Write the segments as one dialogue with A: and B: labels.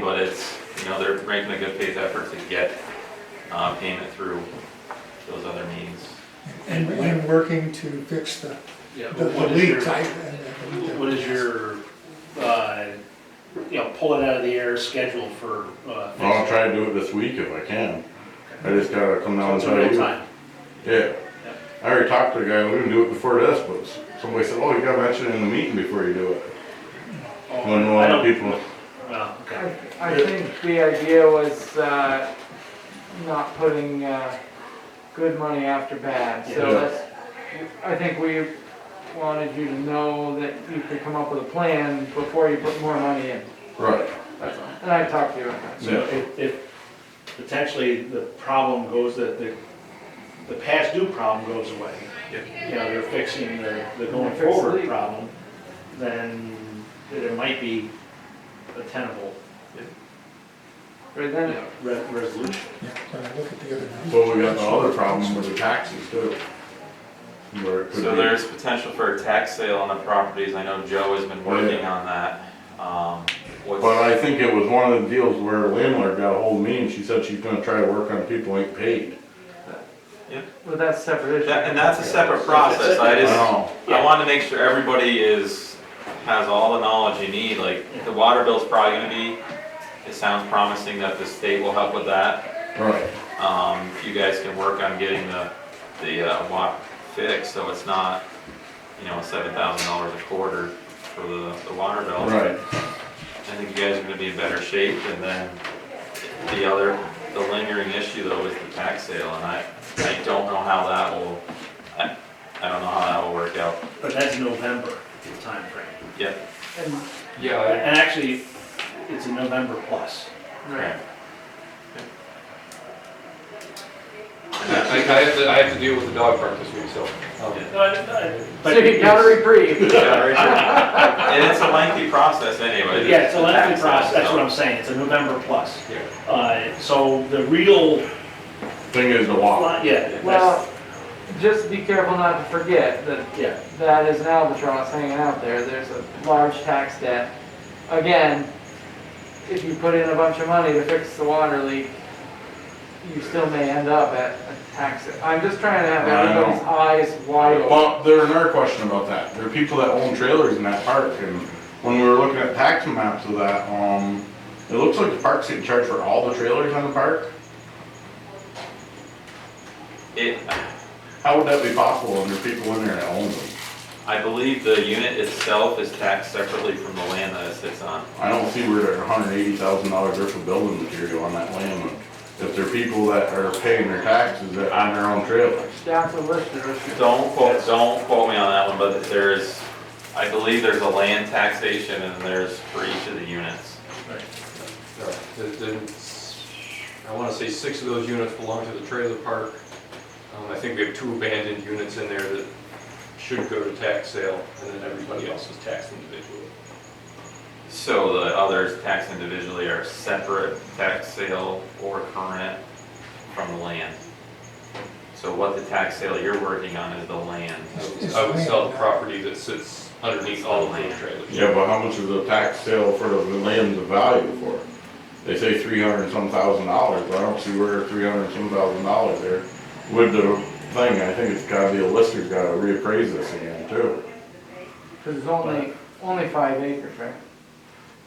A: but it's, you know, they're making a good faith effort to get, uh, payment through those other means.
B: and, and working to fix the,
C: Yeah,
B: the the
C: what is your-
B: leak type. and- and-
C: What is your, uh, you know, pull it out of the air schedule for, uh?
D: Well, I'll
C: fixing?
D: try to do it this week if I can. I just gotta come
C: So
D: down and
C: It's a
D: tell
C: real
D: you.
C: time.
D: Yeah. I already talked to the guy, we didn't do it before this, but somebody said, oh, you gotta mention it in the meeting before you do it.
C: Oh,
D: When a
C: I
D: lot of
C: don't-
D: people,
C: Well, okay.
E: I I think the idea was uh, not putting uh, good money after bad, so
D: Yeah.
E: that's, I think we wanted you to know that you could come up with a plan before you put more money in,
D: right,
E: and I talked to you about that.
C: So if, if potentially the problem goes that the, the past due problem goes away, you know, they're fixing the, the going
E: Fix the
C: forward
E: leak.
C: problem, then it might be a tenable
E: Right then,
C: re- resolution.
B: Yeah, when I look at the other numbers.
D: so we got the other problem with the taxes too. Where it could
A: So
D: be-
A: there's potential for a tax sale on the properties, I know Joe has been
D: Oh, yeah.
A: working on that. Um, what's-
D: But I think it was one of the deals where a landlord got ahold of me and she said she's gonna try to work on people who ain't paid.
E: but that's a separate issue.
A: That- And that's a separate process, I
D: I
A: just,
D: know,
A: I want to make sure everybody is, has all the knowledge you need, like, the water bill's probably gonna be, it sounds promising that the state will help with that.
D: right,
A: Um, if you guys can work on getting the, the, uh, WAP fixed, so it's not, you know, seven thousand dollars a quarter for the, the water bill.
D: right.
A: I think you guys are gonna be in better shape, and then the other, the lingering issue though is the tax sale, and I, I don't know how that will, I, I don't know how that will work out.
C: But that's November timeframe.
A: Yep,
E: And-
F: Yeah,
C: And actually, it's a November plus.
E: Right.
A: Right.
F: I, I I have to, I have to deal with the dog park this week, so. um,
A: Yeah.
E: So you gotta reprieve.
A: And it's a lengthy process anyway.
C: Yeah, it's a lengthy
A: tax sale,
C: process, that's
A: so-
C: what I'm saying, it's a November plus.
F: Yeah.
C: Uh, so the real,
D: Thing is the law.
C: yeah, that's,
E: Well, just be careful not to forget that
C: yeah,
E: that is an albatross hanging out there. There's a large tax debt. Again, if you put in a bunch of money to fix the water leak, you still may end up at a tax. I'm just trying to have
D: I know.
E: everybody's eyes wide open.
D: Well, there's another question about that. There are people that own trailers in that park, and when we were looking at tax maps of that, um, it looks like the park's getting charged for all the trailers on the park.
A: It,
D: How would that be possible when there are people in there that own them?
A: I believe the unit itself is taxed separately from the land that it sits on.
D: I don't see where there are hundred eighty thousand dollars worth of building material on that land. If there are people that are paying their taxes that on their own trailers.
E: That's a list of issues.
A: Don't quote, don't quote me on that one, but there is, I believe there's a land taxation and there's for each of the units.
F: all right, then- then s- I want to say six of those units belong to the trailer park. Um, I think we have two abandoned units in there that should go to tax sale, and then everybody else is taxed individually.
A: So the others taxed individually are separate tax sale or current from the land. So what the tax sale you're working on is the land.
F: I would- I would sell the property that sits underneath all of those trailers.
D: Yeah, but how much is the tax sale for the land of value for? They say three hundred and some thousand dollars, but I don't see where three hundred and some thousand dollars there. With the thing, I think it's gotta be a lister's gotta reappraise this again too.
E: Cause it's only, only five acres, right?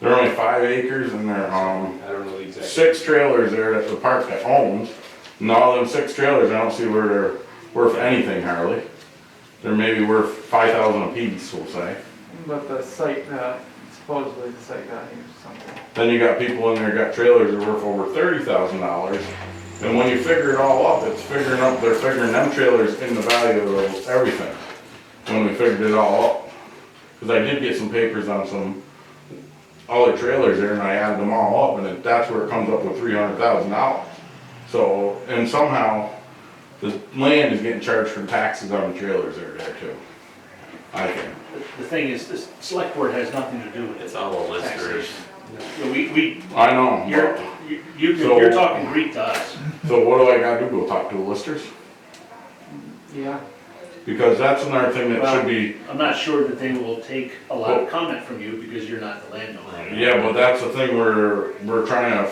D: There are only five acres and there are, um,
F: I don't know the exact.
D: six trailers there at the park that owns. And all them six trailers, I don't see where they're worth anything hardly. They're maybe worth five thousand apiece, we'll say.
E: But the site, uh, supposedly the site value is something.
D: Then you got people in there got trailers that are worth over thirty thousand dollars. And when you figure it all up, it's figuring up, they're figuring them trailers in the value of everything. When we figured it all up. Cause I did get some papers on some, all the trailers there and I added them all up and it- that's where it comes up with three hundred thousand dollars. So, and somehow, the land is getting charged for taxes on the trailers that are there too. I think.
C: the the thing is, this select board has nothing to do with
A: It's
C: it.
A: all a listers.
C: Taxation. We, we,
D: I know. but-
C: you're, you- you-
D: So-
C: you're talking Greek to us.
D: So what do I gotta do? Go talk to the listers?
E: Yeah.
D: Because that's another thing that should be,
C: I'm not sure that they will take a lot of comment from you because you're not the landowner.
D: yeah, but that's the thing we're, we're trying to